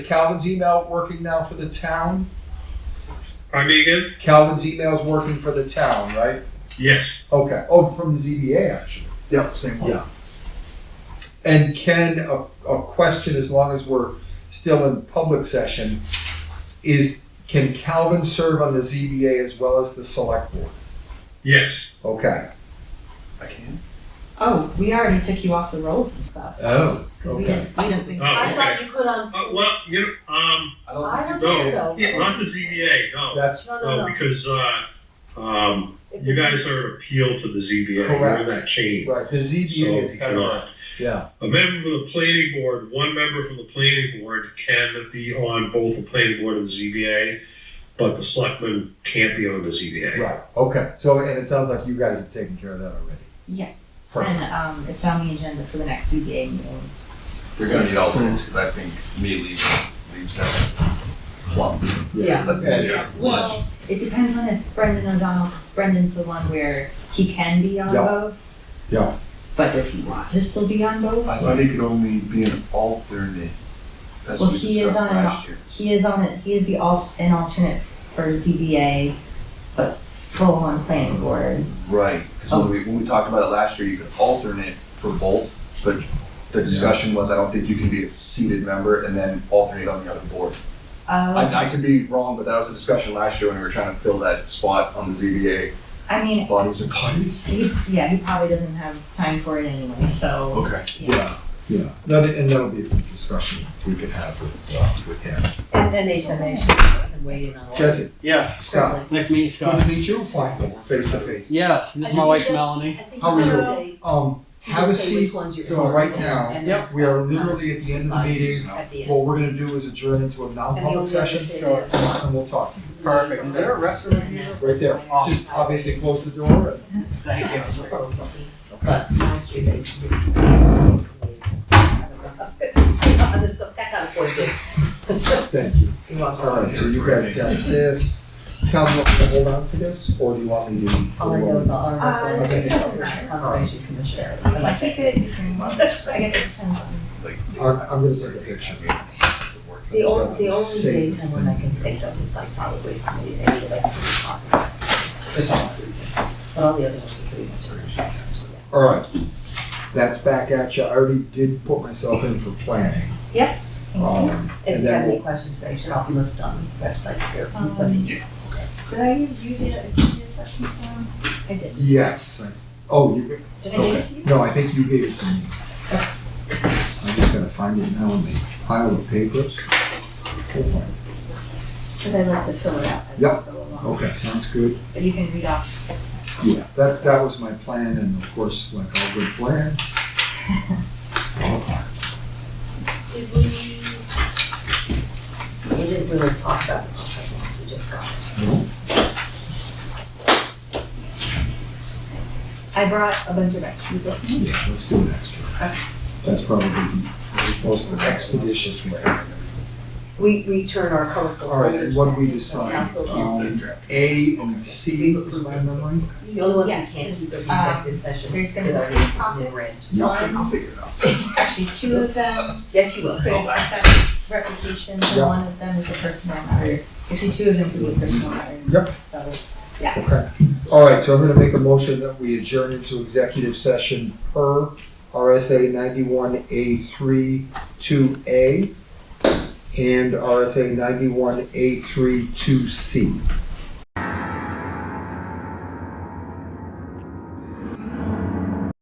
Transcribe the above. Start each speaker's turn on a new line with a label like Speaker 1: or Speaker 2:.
Speaker 1: Calvin's email working now for the town?
Speaker 2: Pardon me again?
Speaker 1: Calvin's email's working for the town, right?
Speaker 2: Yes.
Speaker 1: Okay.
Speaker 3: Oh, from the ZBA, actually. Yep, same one.
Speaker 1: Yeah. And can a, a question, as long as we're still in public session, is can Calvin serve on the ZBA as well as the select board?
Speaker 2: Yes.
Speaker 1: Okay.
Speaker 3: I can.
Speaker 4: Oh, we already took you off the rolls and stuff.
Speaker 1: Oh,
Speaker 4: 'cause we
Speaker 1: okay.
Speaker 4: didn't, we didn't think.
Speaker 2: Oh,
Speaker 5: I
Speaker 2: okay.
Speaker 5: thought you could on,
Speaker 2: Uh, well, you know, um,
Speaker 3: I
Speaker 5: I don't think
Speaker 2: no,
Speaker 5: so.
Speaker 2: yeah, not the ZBA, no,
Speaker 3: That's,
Speaker 5: No, no,
Speaker 2: no,
Speaker 5: no.
Speaker 2: because uh, um,
Speaker 5: If
Speaker 2: you
Speaker 5: it's-
Speaker 2: guys are appealed to the ZBA.
Speaker 1: Correct.
Speaker 2: You're that chain,
Speaker 1: Right, the
Speaker 2: so
Speaker 1: ZBA is
Speaker 2: you
Speaker 1: kind of,
Speaker 2: cannot.
Speaker 1: yeah,
Speaker 2: A member from the planning board, one member from the planning board can be on both the planning board and the ZBA, but the selectman can't be on the ZBA.
Speaker 1: right, okay. So, and it sounds like you guys have taken care of that already.
Speaker 4: Yeah.
Speaker 6: Oh.
Speaker 1: Perfect.
Speaker 4: And, um, it's on the agenda for the next CBA meeting.
Speaker 6: They're gonna need alternates, because I think me leaves, leaves that plump.
Speaker 4: Yeah.
Speaker 1: And-
Speaker 6: Yeah.
Speaker 4: Well, it depends on if Brendan O'Donnell, because Brendan's the one where he can be on
Speaker 1: Yeah.
Speaker 4: both.
Speaker 1: Yeah.
Speaker 4: But does he want to still be on both?
Speaker 6: I thought he could only be an alternate. That's
Speaker 4: Well,
Speaker 6: what we
Speaker 4: he is
Speaker 6: discussed
Speaker 4: on an
Speaker 6: last year.
Speaker 4: He is on it, he is the alt, an alternate for ZBA, but full on planning board.
Speaker 6: Right, because when we, when we talked about it last year, you could alternate for both, but the discussion was, I don't think you can be a seated member and then alternate on the other board.
Speaker 4: Uh,
Speaker 6: I, I could be wrong, but that was the discussion last year when we were trying to fill that spot on the ZBA,
Speaker 4: I mean,
Speaker 6: bodies and bodies.
Speaker 4: he, yeah, he probably doesn't have time for it anyway, so.
Speaker 6: Okay.
Speaker 1: Yeah, yeah. That, and that'll be a good discussion we can have with, uh, with him.
Speaker 5: And then HMA should weigh in on all.
Speaker 1: Jesse,
Speaker 7: Yes.
Speaker 1: Scott,
Speaker 7: Nice to meet you,
Speaker 1: good to
Speaker 7: Scott.
Speaker 1: meet you, finally, face to face.
Speaker 7: Yes, this is my wife, Melanie.
Speaker 1: How are
Speaker 5: you?
Speaker 1: Um, have a seat. for right now. We are literally at the end of the meeting.
Speaker 5: At the end.
Speaker 1: What we're gonna do is adjourn into a
Speaker 5: And the only other
Speaker 1: non-public session
Speaker 5: thing
Speaker 7: Sure.
Speaker 5: is-
Speaker 1: and we'll talk.
Speaker 7: Perfect. Is there a restroom
Speaker 5: in here?
Speaker 1: Right there. Just obviously close the door and
Speaker 7: Thank you.
Speaker 5: But my street, they- I'm just gonna- that kind of point is-
Speaker 1: thank you.
Speaker 5: You're welcome.
Speaker 1: All right, so you guys got this. Cal, do you want me to hold on to this or do you want me to?
Speaker 5: All I know is the
Speaker 4: Uh,
Speaker 5: RSA.
Speaker 1: it doesn't
Speaker 4: matter.
Speaker 5: Conservation Commission.
Speaker 4: So if I keep it, you can, I guess it depends on.
Speaker 1: I'm, I'm gonna take a picture.
Speaker 5: The only,
Speaker 1: That's
Speaker 5: the
Speaker 1: the
Speaker 5: only
Speaker 1: safest
Speaker 5: daytime one I can think of is like solid waste committee, they meet like three o'clock. For some odd reason. But all the other ones are pretty much around that time, so yeah.
Speaker 1: All right. That's back at you. I already did put myself in for planning.
Speaker 5: Yep.
Speaker 1: Um,
Speaker 5: If
Speaker 1: and
Speaker 5: you have
Speaker 1: then
Speaker 5: any
Speaker 1: we'll,
Speaker 5: questions, they should all be listed on the website here.
Speaker 4: Um,
Speaker 5: Let me-
Speaker 4: Did I give you the executive session form? I did.
Speaker 1: yes. I- Oh, you,
Speaker 4: Did I give it to you?
Speaker 1: No, I think you gave it to me. I'm just gonna find it now in the pile of papers. We'll find it.
Speaker 4: Because I like to fill it out. as we
Speaker 1: Yep.
Speaker 4: go along.
Speaker 1: Okay, sounds good.
Speaker 4: But you can read off.
Speaker 1: Yeah, that, that was my plan, and of course, like all good plans.
Speaker 5: Did we? We didn't really talk about the contract once, we just got it.
Speaker 4: I brought a bunch of extras with me.
Speaker 1: Yeah, let's do an extra. That's probably the most expeditious way.
Speaker 5: We, we turn our colorful.
Speaker 1: All right,
Speaker 5: folders
Speaker 1: and what do we
Speaker 5: back into
Speaker 1: decide?
Speaker 5: capital.
Speaker 1: Um, A and C is my memory?
Speaker 5: The only ones we
Speaker 4: Yes,
Speaker 5: can't keep
Speaker 4: is,
Speaker 5: are
Speaker 4: uh,
Speaker 5: the executive session.
Speaker 4: There's gonna
Speaker 5: with our
Speaker 4: be three
Speaker 5: names in red.
Speaker 4: topics.
Speaker 1: Yeah.
Speaker 4: One,
Speaker 6: I'll figure it out.
Speaker 4: actually two of them
Speaker 5: Yes, you will.
Speaker 4: could affect reputation, and
Speaker 1: Yeah.
Speaker 4: one of them is a personal matter. Actually, two of them could be a personal matter.
Speaker 1: Yep.
Speaker 4: So,
Speaker 1: Okay. All right, so I'm gonna make a motion that we adjourn into executive session per RSA ninety-one A three two A and RSA ninety-one A three two C.